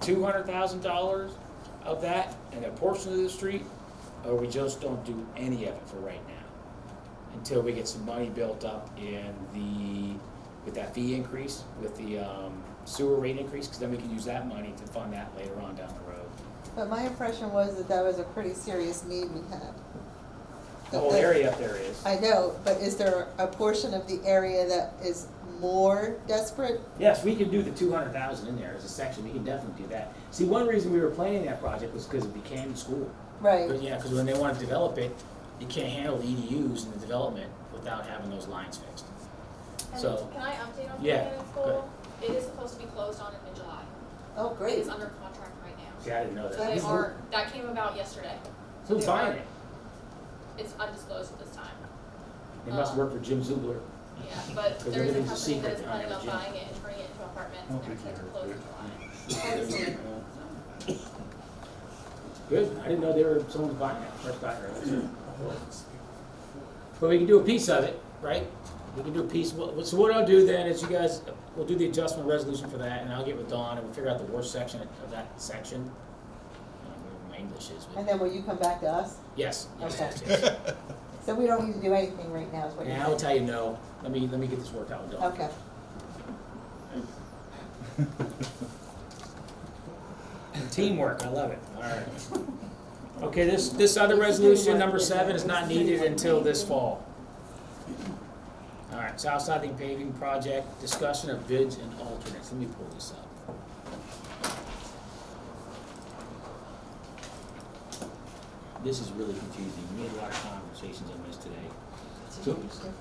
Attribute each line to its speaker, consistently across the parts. Speaker 1: two hundred thousand dollars of that and a portion of the street, or we just don't do any of it for right now. Until we get some money built up in the, with that fee increase, with the um, sewer rate increase, because then we can use that money to fund that later on down the road.
Speaker 2: But my impression was that that was a pretty serious need we had.
Speaker 1: The whole area up there is.
Speaker 2: I know, but is there a portion of the area that is more desperate?
Speaker 1: Yes, we can do the two hundred thousand in there as a section, we can definitely do that. See, one reason we were planning that project was because it became school. But
Speaker 2: Right,
Speaker 1: yeah, because when they want to develop it, you can't handle the E EDUs and the development without having those lines fixed.
Speaker 3: And
Speaker 1: So-
Speaker 3: Can I update on
Speaker 1: Yeah,
Speaker 3: Cannon
Speaker 1: go ahead.
Speaker 3: School? It is supposed to be closed on in mid-July.
Speaker 2: oh,
Speaker 3: It
Speaker 2: great.
Speaker 3: is under contract right now.
Speaker 1: See, I didn't know
Speaker 3: So
Speaker 1: that.
Speaker 3: they
Speaker 2: Who's-
Speaker 3: are, that came about yesterday. So
Speaker 1: Who's
Speaker 3: they are-
Speaker 1: buying it?
Speaker 3: It's undisclosed at this time.
Speaker 1: They must work for Jim Zubler.
Speaker 3: Yeah, but
Speaker 1: Because
Speaker 3: there is a
Speaker 1: everything's a
Speaker 3: company
Speaker 1: secret
Speaker 3: that is
Speaker 1: behind
Speaker 3: planning on
Speaker 1: the gym.
Speaker 3: buying it and turning it into apartments and
Speaker 4: Don't be
Speaker 3: everything's
Speaker 4: there,
Speaker 3: closed in July.
Speaker 4: dude.
Speaker 2: Excellent.
Speaker 1: Good, I didn't know they were, someone's buying it, first I heard. But we can do a piece of it, right? We can do a piece, Well, so what I'll do then is you guys, we'll do the adjustment resolution for that, and I'll get with Dawn, and we'll figure out the worst section of that section. I don't know where my English is,
Speaker 2: And
Speaker 1: but,
Speaker 2: then will you come back to us?
Speaker 1: yes, yes,
Speaker 2: Okay.
Speaker 1: yes, yes.
Speaker 2: So we don't need to do anything right now, is what you're
Speaker 1: And I will tell
Speaker 2: saying?
Speaker 1: you no, let me, let me get this worked out with Dawn.
Speaker 2: Okay.
Speaker 1: Teamwork, I love it, all right. Okay, this, this other resolution, number seven, is not needed until this fall. All right, South Siding paving project, discussion of bids and alternates, let me pull this up. This is really confusing, we had a lot of conversations on this today. So,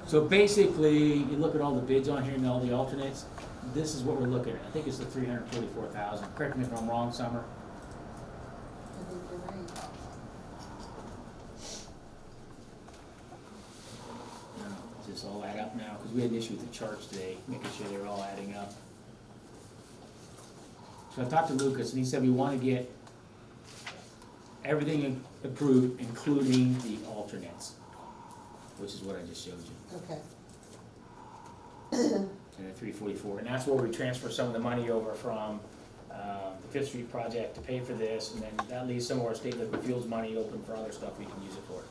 Speaker 1: so basically, you look at all the bids on here and all the alternates, this is what we're looking at, I think it's the three hundred forty-four thousand, correct me if I'm wrong, Summer?
Speaker 2: I think you're right.
Speaker 1: Does this all add up now? Because we had an issue with the charts today, making sure they're all adding up. So I talked to Lucas, and he said we want to get everything in- approved, including the alternates, which is what I just showed you,
Speaker 2: Okay,
Speaker 1: and the three forty-four. And that's where we transfer some of the money over from um, the Fifth Street project to pay for this, and then that leaves some of our state liquid fuels money open for other stuff we can use it for.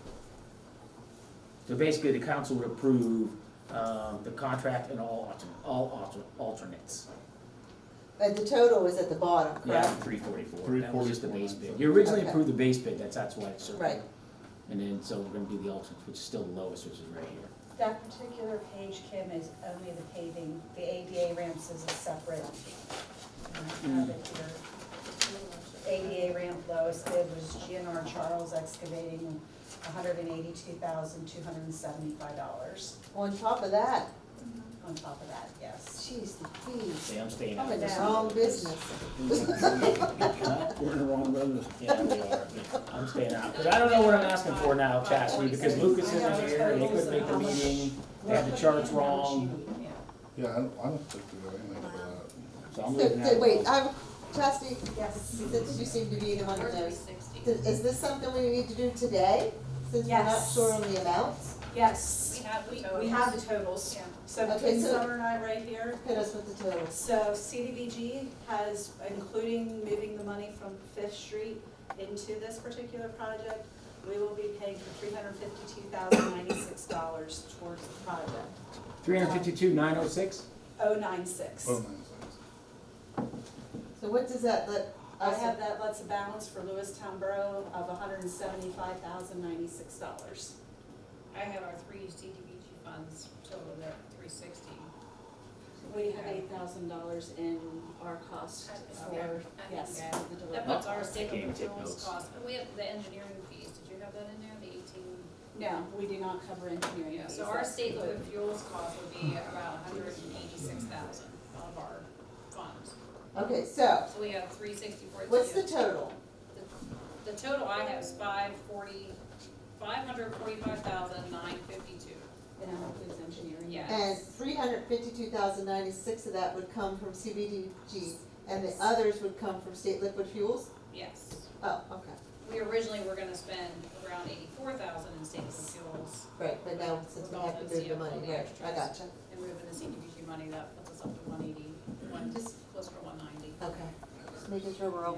Speaker 1: So basically, the council would approve um, the contract and all altern, all alter- alternates.
Speaker 2: but the total is at the bottom,
Speaker 1: Yeah,
Speaker 2: correct?
Speaker 1: three forty-four, that was just the base
Speaker 4: 344.
Speaker 1: bid. You originally
Speaker 2: Okay.
Speaker 1: approved the base bid, that's, that's why it's circled.
Speaker 2: Right.
Speaker 1: And then, so we're gonna do the alternates, which is still the lowest, which is right here.
Speaker 5: That particular page, Kim, is only the paving, the ADA ramps is a separate. um, you know, have it here. ADA ramp lowest bid was GNR Charles excavating hundred and eighty-two thousand, two hundred and seventy-five dollars
Speaker 2: On top of that,
Speaker 5: on top of that, yes.
Speaker 2: jeez, the fees,
Speaker 1: See, I'm staying out
Speaker 2: I'm
Speaker 1: of
Speaker 2: in the
Speaker 1: this.
Speaker 2: wrong Oh, business.
Speaker 4: We're in the wrong business.
Speaker 1: Yeah, we are. I'm staying out, because I don't know what I'm asking for now, Chastity, because Lucas isn't here, they couldn't make the meeting, they had the charts wrong,
Speaker 5: Yeah.
Speaker 4: Yeah, I don't, I don't think we got anything for that.
Speaker 1: so I'm
Speaker 2: So,
Speaker 1: leaving
Speaker 2: so
Speaker 1: that.
Speaker 2: wait, uh, I have, Chastity,
Speaker 5: Yes.
Speaker 2: since you seem to be the one who
Speaker 3: Or three
Speaker 2: knows,
Speaker 3: sixty.
Speaker 2: Th- Is this something we need to do today, since we're not
Speaker 5: Yes.
Speaker 2: sure on the amounts?
Speaker 5: Yes,
Speaker 3: We have the
Speaker 5: we
Speaker 3: totals.
Speaker 5: have the totals.
Speaker 3: Yeah.
Speaker 5: So
Speaker 2: Okay,
Speaker 5: between
Speaker 2: so-
Speaker 5: Summer and I right here,
Speaker 2: Hit us with the totals.
Speaker 5: So CDBG has, including moving the money from Fifth Street into this particular project, we will be paying for three hundred fifty-two thousand ninety-six dollars towards the project,
Speaker 1: Three hundred fifty-two, nine oh six?
Speaker 5: oh nine six.
Speaker 4: Oh, man, it's-
Speaker 2: So what does that let
Speaker 5: I
Speaker 2: us,
Speaker 5: have that, lets a balance for Lewistown Borough of hundred and seventy-five thousand ninety-six dollars.
Speaker 3: I have our three CDBG funds, total there, three sixty.
Speaker 5: We have eight thousand dollars in our cost for, yes, for the
Speaker 3: That
Speaker 1: Oh.
Speaker 5: delivery.
Speaker 3: puts our
Speaker 1: I can't
Speaker 3: state
Speaker 1: even take
Speaker 3: materials
Speaker 1: notes.
Speaker 3: cost, and we have the engineering fees, did you have that in there, the eighteen?
Speaker 5: No, we do not cover engineering
Speaker 3: Yeah,
Speaker 5: fees.
Speaker 3: so our
Speaker 5: That's
Speaker 3: state
Speaker 5: included.
Speaker 3: liquid fuels cost would be about hundred and eighty-six thousand of our funds.
Speaker 2: okay, so,
Speaker 3: So we have three sixty-four.
Speaker 2: what's the total?
Speaker 3: The total I have is five forty, five hundred forty-five thousand nine fifty-two,
Speaker 5: And that includes engineering.
Speaker 3: Yeah.
Speaker 2: And three hundred fifty-two thousand ninety-six of that would come from CBDG, and the others would come from state liquid fuels?
Speaker 3: yes.
Speaker 2: Oh, okay,
Speaker 3: We originally were gonna spend around eighty-four thousand in state liquid fuels,
Speaker 2: right, but now since we have to move the money, right, I gotcha,
Speaker 3: and moving the CDBG money, that puts us up to one eighty, one, just closer to one ninety.
Speaker 2: okay. making sure we're okay.